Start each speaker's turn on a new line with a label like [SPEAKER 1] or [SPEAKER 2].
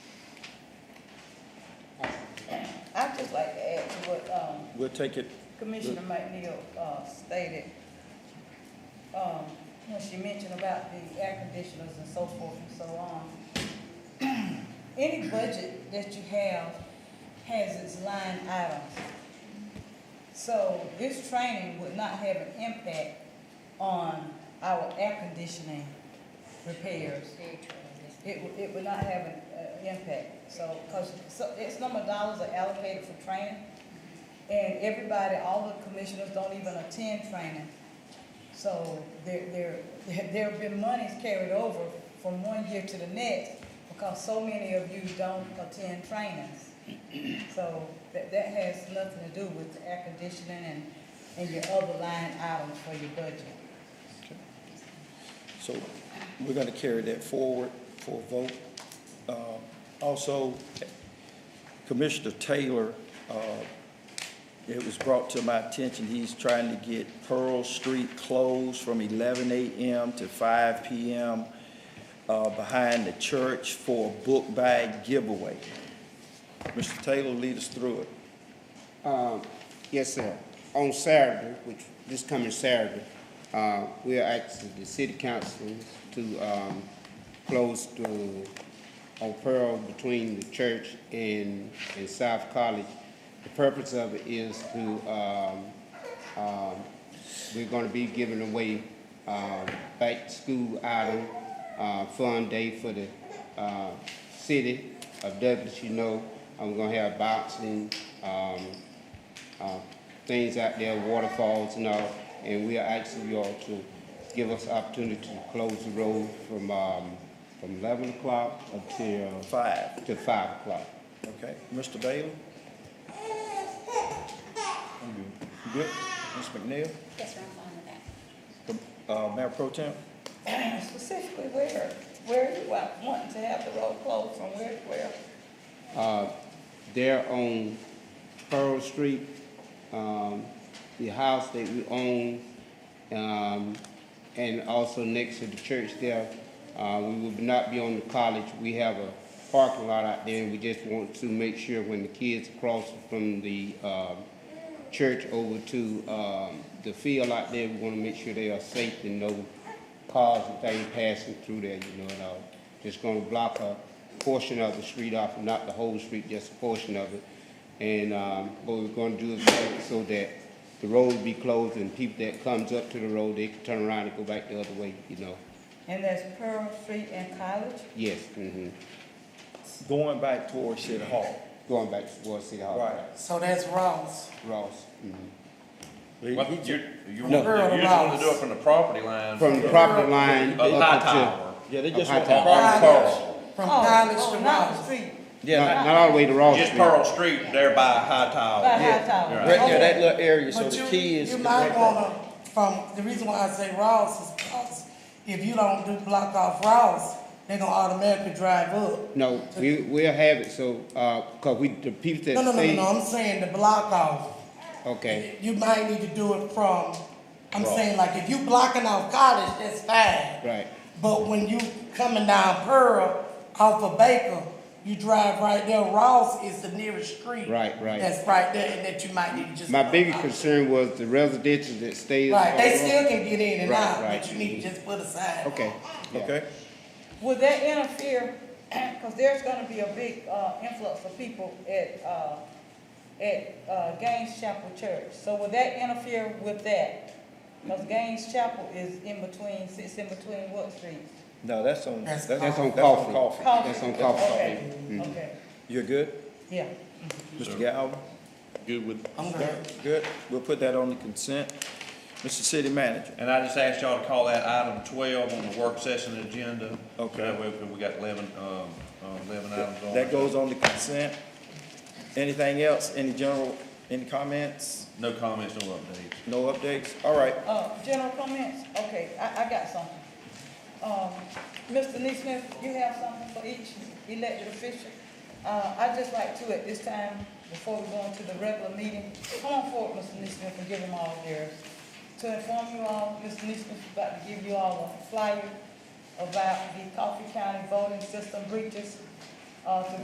[SPEAKER 1] just like to add to what, um,
[SPEAKER 2] We'll take it,
[SPEAKER 1] Commissioner McNeil, uh, stated, um, when she mentioned about the air conditioners and so forth and so on. Any budget that you have has its line items. So this training would not have an impact on our air conditioning repairs. It would, it would not have an, uh, impact, so, cause, so, it's number of dollars are allocated for training. And everybody, all the commissioners don't even attend training. So there, there, there have been monies carried over from one year to the next because so many of you don't attend trainings. So that, that has nothing to do with the air conditioning and, and your other line items for your budget.
[SPEAKER 2] so we're gonna carry that forward for a vote. Uh, Also, Commissioner Taylor, uh, it was brought to my attention, he's trying to get Pearl Street closed from eleven AM to five PM uh, behind the church for a book bag giveaway. Mr. Taylor, lead us through it.
[SPEAKER 3] Um, Yes, sir. On Saturday, which, this coming Saturday, uh, we are asking the city council to um, close the, on Pearl between the church and, and South College. The purpose of it is to, um, um, we're gonna be giving away um, back-to-school item, uh, fun day for the uh, city of Douglas, you know. I'm gonna have boxing, um, uh, things out there, waterfalls and all, and we are asking y'all to give us opportunity to close the road from, um, from eleven o'clock until,
[SPEAKER 2] Five,
[SPEAKER 3] to five o'clock.
[SPEAKER 2] okay? Mr. Bailey? You Good? Ms. McNeil?
[SPEAKER 4] Yes, sir, I'm fine with that.
[SPEAKER 2] Uh, Mayor Pro Tem?
[SPEAKER 1] Specifically where, where you are wanting to have the road closed from where, to where?
[SPEAKER 3] Uh, there on Pearl Street, um, the house that we own, um, and also next to the church there, uh, we will not be on the college, we have a parking lot out there, and we just want to make sure when the kids cross from the, um, church over to, um, the field out there, we wanna make sure they are safe and no cars and things passing through there, you know, and all. Just gonna block a portion of the street off, not the whole street, just a portion of it. And, um, what we're gonna do is make it so that the road be closed and people that comes up to the road, they can turn around and go back the other way, you know.
[SPEAKER 1] And that's Pearl Street and College?
[SPEAKER 3] Yes, hmm
[SPEAKER 2] Going back towards City Hall.
[SPEAKER 3] Going back towards City Hall.
[SPEAKER 5] So that's Ross.
[SPEAKER 3] Ross, mhm.
[SPEAKER 6] What, you, you
[SPEAKER 3] No.
[SPEAKER 6] want, you just want to do it from the property line?
[SPEAKER 3] From the property line.
[SPEAKER 6] Up high
[SPEAKER 3] up
[SPEAKER 6] tower.
[SPEAKER 2] Yeah, they
[SPEAKER 3] just
[SPEAKER 2] just
[SPEAKER 3] want
[SPEAKER 2] want
[SPEAKER 3] the
[SPEAKER 6] Pearl.
[SPEAKER 5] From
[SPEAKER 1] Oh,
[SPEAKER 5] college
[SPEAKER 1] oh,
[SPEAKER 5] to
[SPEAKER 1] not the
[SPEAKER 5] Ross.
[SPEAKER 1] street,
[SPEAKER 3] to- Not, not all the way to Ross
[SPEAKER 6] Just
[SPEAKER 3] Street.
[SPEAKER 6] Pearl Street there by high tower.
[SPEAKER 1] by High Tower.
[SPEAKER 6] Yeah,
[SPEAKER 2] Right there,
[SPEAKER 1] Okay.
[SPEAKER 2] that little area, so
[SPEAKER 5] Oh, But
[SPEAKER 2] the
[SPEAKER 5] you,
[SPEAKER 2] kids.
[SPEAKER 5] you
[SPEAKER 2] can
[SPEAKER 5] might
[SPEAKER 2] walk back.
[SPEAKER 5] wanna, from, the reason why I say Ross is because if you don't do block off Ross, they're gonna automatically drive up.
[SPEAKER 3] No, we, we'll have it, so, uh, cause we, the people that
[SPEAKER 5] No, no, no, no,
[SPEAKER 3] stay.
[SPEAKER 5] no, I'm saying the block off.
[SPEAKER 3] Okay,
[SPEAKER 5] You might need to do it from, I'm
[SPEAKER 6] Ross.
[SPEAKER 5] saying like if you blocking off college, that's fine.
[SPEAKER 3] right,
[SPEAKER 5] But when you coming down Pearl off of Baker, you drive right there. Ross is the nearest street.
[SPEAKER 3] Right, right.
[SPEAKER 5] That's right there, and that you might need to just.
[SPEAKER 3] my biggest concern was the residential that stays.
[SPEAKER 5] Right, they
[SPEAKER 3] on-
[SPEAKER 5] still can get in and
[SPEAKER 3] Right,
[SPEAKER 5] out,
[SPEAKER 3] right.
[SPEAKER 5] but you need to just put aside.
[SPEAKER 3] Okay, yeah,
[SPEAKER 2] Okay,
[SPEAKER 1] Would that interfere, because there's gonna be a big, uh, influx of people at, uh, at, uh, Gaines Chapel Church, so would that interfere with that? Because Gaines Chapel is in between, sits in between what street?
[SPEAKER 2] no, that's on,
[SPEAKER 5] That's
[SPEAKER 2] that's
[SPEAKER 3] that's
[SPEAKER 2] on
[SPEAKER 3] on coffee,
[SPEAKER 2] coffee.
[SPEAKER 3] that's on coffee. Mm-hmm.
[SPEAKER 1] Okay, okay,
[SPEAKER 2] You're good,
[SPEAKER 1] yeah.
[SPEAKER 2] Mr. Galvin?
[SPEAKER 6] Good with.
[SPEAKER 5] I'm good.
[SPEAKER 2] Good, we'll put that on the consent. Mr. City Manager,
[SPEAKER 6] And I just asked y'all to call that item twelve on the work session agenda.
[SPEAKER 2] Okay.
[SPEAKER 6] That way, we got eleven, um, um, eleven items on.
[SPEAKER 2] that goes on the consent. Anything else, any general, any comments,
[SPEAKER 6] No comments, no updates.
[SPEAKER 2] no updates? All right,
[SPEAKER 1] Uh, general comments, okay, I, I got something. Um, Mr. Neesmith, you have something for each elected official? Uh, I'd just like to at this time, before we go into the regular meeting, come on forward, Mr. Neesmith, and give them all theirs. To inform you all, Mr. Neesmith is about to give you all a flyer about the Coffee County voting system breaches, uh, to